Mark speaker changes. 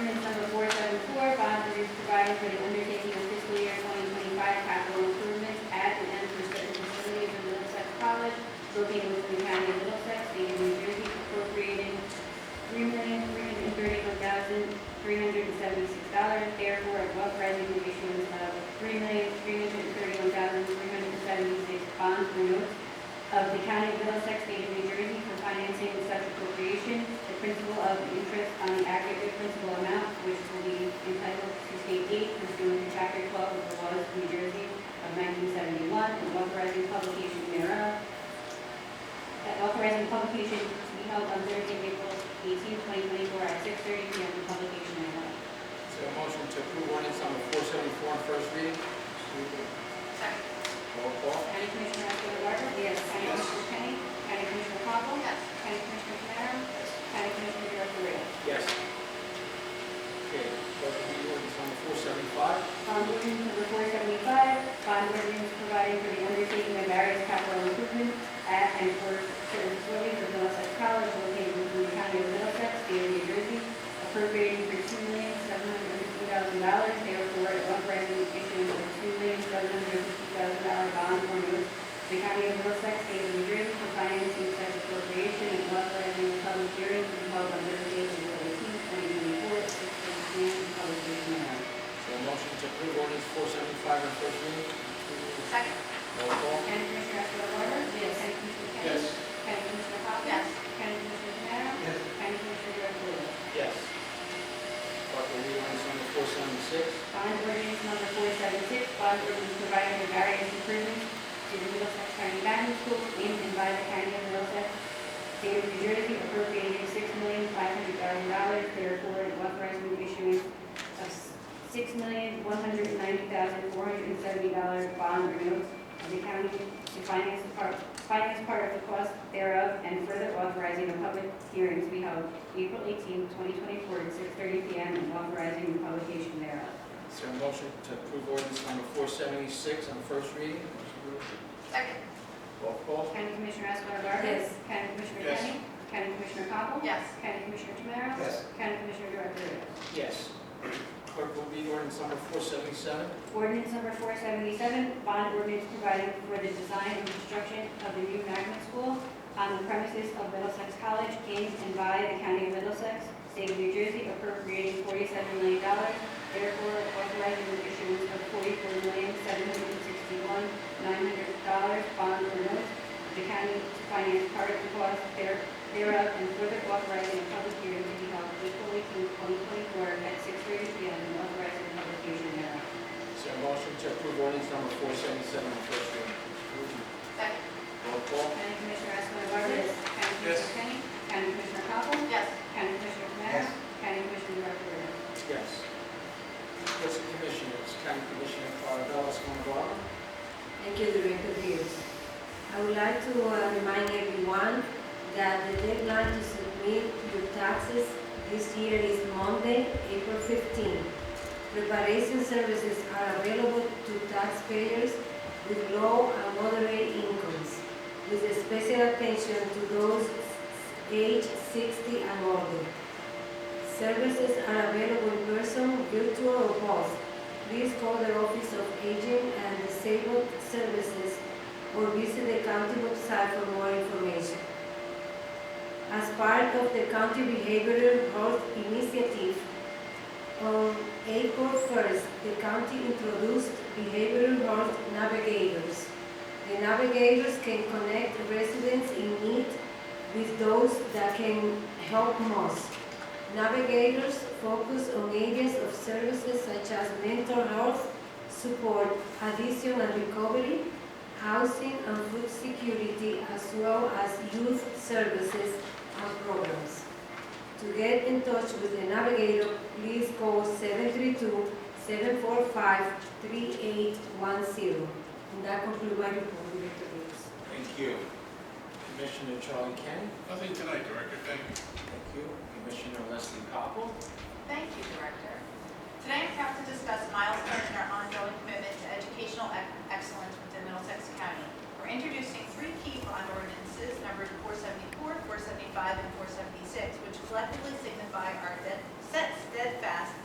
Speaker 1: three hundred and seventy-six dollars, therefore, a above resolution of three million, three hundred and thirty-one thousand, three hundred and seventy-six bonds or notes of the county of Middlesex, state of New Jersey for financing of such appropriation, the principal of interest on the aggregate principal amount, which will be entitled to state aid pursuant to chapter twelve of the laws of New Jersey of nineteen seventy-one, and authorizing publication thereof, that authorizing publication to be held on Thursday, April 18, 2024, at 6:30 p.m. for publication and hearing.
Speaker 2: Is there a motion to approve ordinance number four seventy-four on first reading?
Speaker 3: Second.
Speaker 2: Roll call.
Speaker 1: County Commissioner Esposito Garza? Yes. County Commissioner Kenny? County Commissioner Hopple?
Speaker 3: Yes.
Speaker 1: County Commissioner Canaro? County Commissioner Gervail?
Speaker 2: Yes. Okay, first reading ordinance number four seventy-five.
Speaker 1: Bond ordinance number 475, bond ordinance providing for the undertaking of various capital improvements at and for certain facilities of Middlesex College located within the county of Middlesex, state of New Jersey, appropriating for $2,750,000, therefore authorizing the issuance of $2,750,000 bond or notes to the county of Middlesex, state of New Jersey, for financing such appropriation and authorizing the public hearing to be held on Thursday, April 18, 2024, at 6:00 p.m. for publication thereof.
Speaker 2: Is there a motion to approve ordinance four seventy-five on first reading?
Speaker 3: Second.
Speaker 2: Roll call.
Speaker 1: County Commissioner Esposito Garza? Yes. County Commissioner Kenny? County Commissioner Hopkins?
Speaker 3: Yes.
Speaker 1: County Commissioner Canaro?
Speaker 2: Yes.
Speaker 1: County Commissioner Garvelia?
Speaker 2: Yes. Start the reading ordinance number four seventy-six.
Speaker 1: Bond ordinance number four seven six, bond ordinance providing for various improvements to the Middlesex County Magnet School in and by the county of Middlesex, state of New Jersey, appropriating six million five hundred thousand dollars, therefore and authorizing the issuance of six million one hundred ninety thousand four hundred and seventy dollars bond or notes of the county to finance the part, finance part of the cost thereof, and further authorizing a public hearing to be held April 18, 2024, at six thirty P M, and authorizing the publication thereof.
Speaker 2: Is there a motion to approve ordinance number four seventy-six on first reading?
Speaker 3: Second.
Speaker 2: Roll call.
Speaker 1: County Commissioner Escobar Garza?
Speaker 3: Yes.
Speaker 1: County Commissioner
Speaker 2: Yes.
Speaker 1: Kenny? County Commissioner Copple?
Speaker 3: Yes.
Speaker 1: County Commissioner Tamara?
Speaker 2: Yes.
Speaker 1: County Commissioner Garvelia?
Speaker 2: Yes. Clerk will read ordinance number four seventy-seven.
Speaker 1: Ordinance number four seventy-seven, bond ordinance providing for the design and construction of the new magnet school on the premises of Middlesex College in and by the county of Middlesex, state of New Jersey, appropriating forty-seven million dollars, therefore authorizing the issuance of forty-four million, seven hundred and sixty-one, nine hundred dollars bond or notes of the county to finance part of the cost there- thereof, and further authorizing a public hearing to be held April 18, 2024, at six thirty P M, and authorizing the publication thereof.
Speaker 2: Is there a motion to approve ordinance number four seventy-seven on first reading?
Speaker 3: Second.
Speaker 2: Roll call.
Speaker 1: County Commissioner Escobar Garza? County Commissioner Kenny? County Commissioner Hopple?
Speaker 3: Yes.
Speaker 1: County Commissioner Tamara? County Commissioner Garvelia?
Speaker 2: Yes. What's the commissioners? County Commissioner Caravalas, one of our.
Speaker 4: Thank you, Director Rios. I would like to uh, remind everyone that the deadline to submit your taxes this year is Monday, April 15. Preparation services are available to taxpayers with low and moderate incomes, with a special attention to those age 60 and older. Services are available in person, virtual, or both. Please call the Office of Aging and Disabled Services or visit the county website for more information. As part of the County Behavioral Health Initiative, on April 1st, the county introduced behavioral health navigators. The navigators can connect residents in need with those that can help most. Navigators focus on areas of services such as mental health, support, addiction and recovery, housing and food security, as well as youth services and programs. To get in touch with the navigator, please call 732-745-3810. And that concludes my report, Director Rios.
Speaker 2: Thank you. Commissioner Charlie Kenny.
Speaker 5: Nothing tonight, Director, thank you.
Speaker 2: Thank you. Commissioner Leslie Copel.
Speaker 3: Thank you, Director. Today, I'm proud to discuss milestones in our ongoing commitment to educational ec- excellence within Middlesex County. We're introducing three key bond ordinances, numbered 474, 475, and 476, which collectively